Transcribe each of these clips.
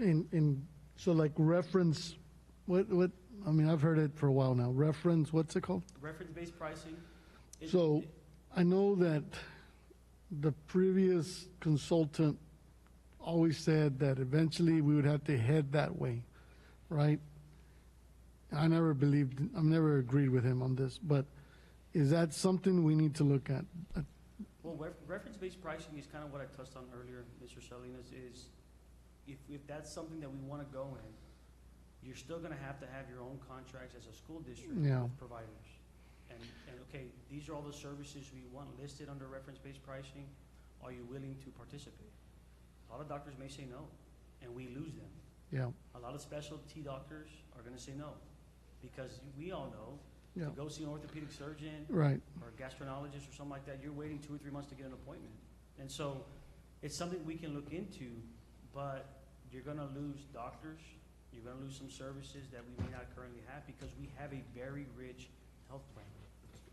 in, in, so like reference, what, what, I mean, I've heard it for a while now, reference, what's it called? Reference-based pricing? it- So I know that the previous consultant always said that eventually we would have to head that way, right? I never believed, I've never agreed with him on this, but is that something we need to look at? Uh, Well, ref- reference-based pricing is kind of what I touched on earlier, Mr. Salinas, is if, if that's something that we want to go in, you're still going to have to have your own contracts as a school district Yeah. with providers. And, and okay, these are all the services we want listed under reference-based pricing. Are you willing to participate? A lot of doctors may say no, and we lose them. Yeah, A lot of specialty doctors are going to say no, because we all know, Yeah. to go see an orthopedic surgeon, right, or a gastroenterologist or something like that, you're waiting two or three months to get an appointment. And so it's something we can look into, but you're gonna lose doctors, you're gonna lose some services that we may not currently have because we have a very rich health plan.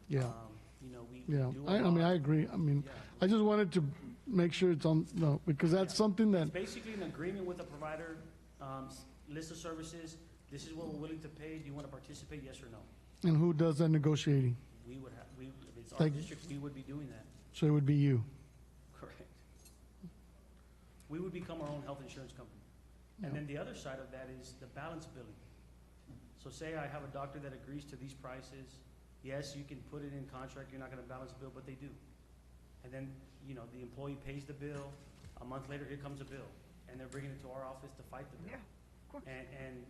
yeah, Um, You know, we we yeah. do a I, I mean, I lot. agree. I mean, Yeah. I just wanted to make sure it's on, no, because that's something that, It's basically an agreement with the provider, um, s- list of services, this is what we're willing to pay, do you wanna participate, yes or no? and who does that negotiating? We would have, we, if it's our Thank- district, we would be doing that. So it would be you. Correct. We would become our own health insurance company. And Yeah. then the other side of that is the balance billing. So say I have a doctor that agrees to these prices, yes, you can put it in contract, you're not gonna balance bill, but they do. And then, you know, the employee pays the bill, a month later, here comes a bill, and they're bringing it to our office to fight the bill. of course. And, and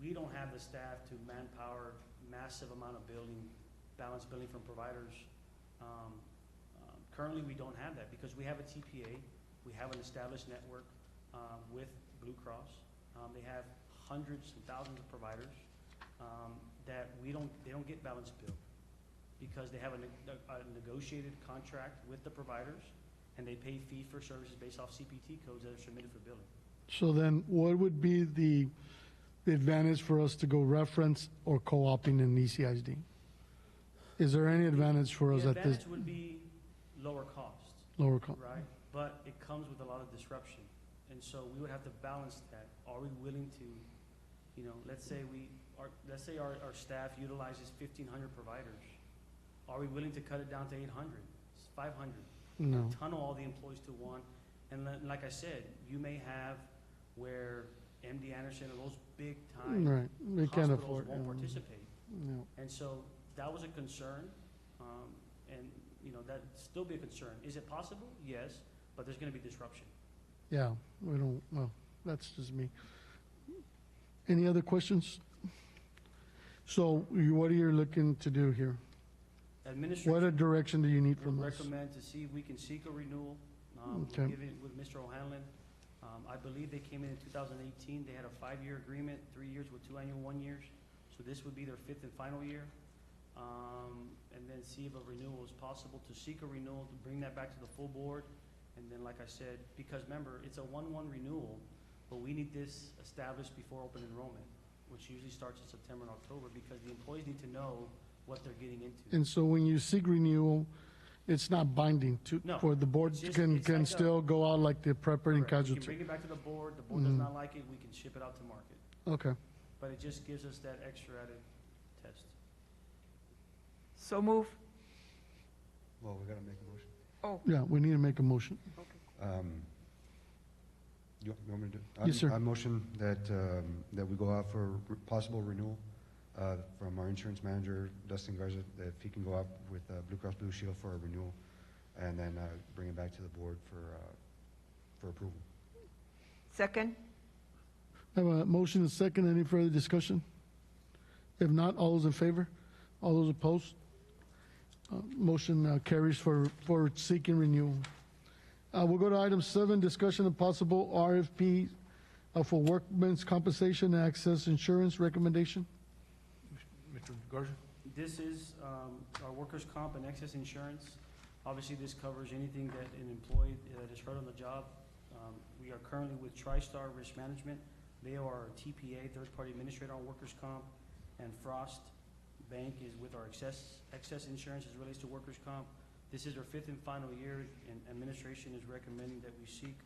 we don't have the staff to manpower massive amount of billing, balance billing from providers. Um, um, Currently, we don't have that because we have a TPA, we have an established network um, with Blue Cross. Um, They have hundreds and thousands of providers um, that we don't, they don't get balance billed because they have a ne- a negotiated contract with the providers and they pay fee for services based off CPT codes that are submitted for billing. So then what would be the the advantage for us to go reference or co-opting in E ECISD? Is there any advantage for us The at this advantage would be lower cost, lower cost? right? But it comes with a lot of disruption. And so we would have to balance that. Are we willing to, you know, let's say we, our, let's say our, our staff utilizes fifteen hundred providers. Are we willing to cut it down to eight hundred, five hundred? No, tunnel all the employees to one. And li- like I said, you may have where MD Anderson or those big time right, we can't hospitals afford. won't yeah, participate. no. And so that was a concern, um, and, you know, that'd still be a concern. Is it possible? Yes, but there's gonna be disruption. Yeah, we don't, well, that's just me. Any other questions? So you- what are you looking to do here? What Administration a direction do you need would from us? recommend to see if we can seek a renewal, um, Okay. give it with Mr. O'Hanlon. Um, I believe they came in in two thousand eighteen, they had a five-year agreement, three years with two annual one years. So this would be their fifth and final year. Um, and then see if a renewal is possible, to seek a renewal, to bring that back to the full board. And then, like I said, because remember, it's a one-one renewal, but we need this established before open enrollment, which usually starts in September and October, because the employees need to know what they're getting into. And so when you seek renewal, it's not binding to, No, for the board it's just- can, it's can like a- still go out like the property and Correct. We can casualty. bring it back to the board, the board does Mhm. not like it, we can ship it out to market. Okay, But it just gives us that extra added test. So move. Well, we gotta make a motion. Oh, yeah, we need to make a motion. okay. Um, You you want me to do? Yes, I'm- sir. I motion that, um, that we go out for re- possible renewal uh, from our insurance manager, Dustin Garza, that if he can go out with uh, Blue Cross Blue Shield for a renewal, and then uh, bring it back to the board for, uh, for approval. Second? I have a motion and second. Any further discussion? If not, all those in favor? All those opposed? Uh, Motion uh, carries for, for seeking renewal. Uh, We'll go to item seven, discussion of possible RFP uh, for workmen's compensation and access insurance recommendation. Mr. Garza? This is um, our workers' comp and excess insurance. Obviously, this covers anything that an employee uh, that is hurt on the job. Um, We are currently with TriStar Risk Management. They are our TPA, third-party administrator on workers' comp, and Frost Bank is with our excess, excess insurance as it relates to workers' comp. This is our fifth and final year, and administration is recommending that we seek